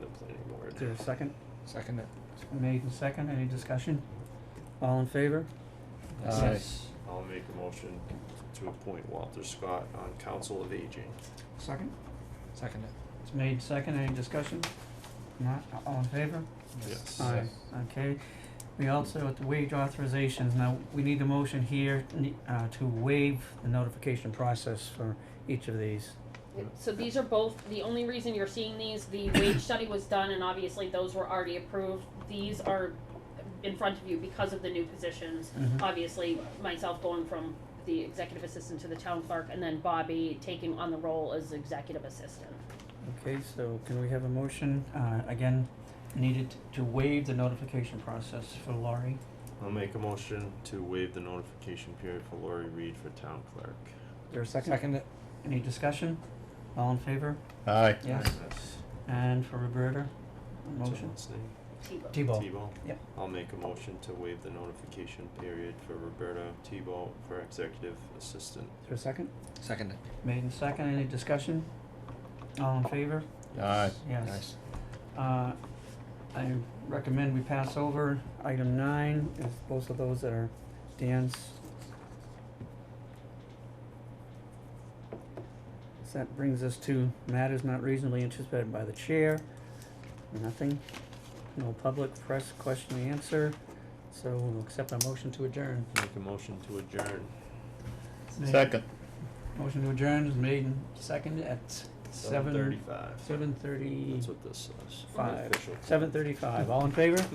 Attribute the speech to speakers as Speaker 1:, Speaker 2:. Speaker 1: there a second?
Speaker 2: Second it.
Speaker 1: Made and second, any discussion? All in favor?
Speaker 2: Aye.
Speaker 3: I'll make a motion to appoint Walter Scott on Council of Aging.
Speaker 1: Second?
Speaker 2: Second it.
Speaker 1: It's made second, any discussion? Not, all in favor?
Speaker 3: Yes.
Speaker 1: Aye. Okay, we also, at the wage authorizations, now, we need a motion here, ne- uh, to waive the notification process for each of these.
Speaker 4: So these are both, the only reason you're seeing these, the wage study was done and obviously those were already approved. These are in front of you because of the new positions.
Speaker 1: Mhm.
Speaker 4: Obviously, myself going from the executive assistant to the town clerk and then Bobby taking on the role as executive assistant.
Speaker 1: Okay, so can we have a motion, uh, again, needed to waive the notification process for Laurie?
Speaker 3: I'll make a motion to waive the notification period for Lori Reed for town clerk.
Speaker 1: Is there a second?
Speaker 2: Second it.
Speaker 1: Any discussion? All in favor?
Speaker 5: Aye.
Speaker 1: Yes. And for Roberta, a motion?
Speaker 3: What's his name?
Speaker 4: Tebow.
Speaker 1: T-Bow.
Speaker 3: Tebow?
Speaker 1: Yep.
Speaker 3: I'll make a motion to waive the notification period for Roberta Tebow for executive assistant.
Speaker 1: Is there a second?
Speaker 2: Second it.
Speaker 1: Made and second, any discussion? All in favor?
Speaker 5: Aye.
Speaker 1: Yes.
Speaker 2: Nice.
Speaker 1: Uh, I recommend we pass over item nine, is both of those that are Dan's. So that brings us to matters not reasonably anticipated by the chair. Nothing, no public press question and answer, so we'll accept a motion to adjourn.
Speaker 3: Make a motion to adjourn.
Speaker 5: Second.
Speaker 1: Motion to adjourn is made and seconded at
Speaker 3: Seven
Speaker 1: seven,
Speaker 3: thirty-five.
Speaker 1: seven thirty
Speaker 3: That's what this is.
Speaker 1: five,
Speaker 3: Official.
Speaker 1: seven thirty-five, all in favor?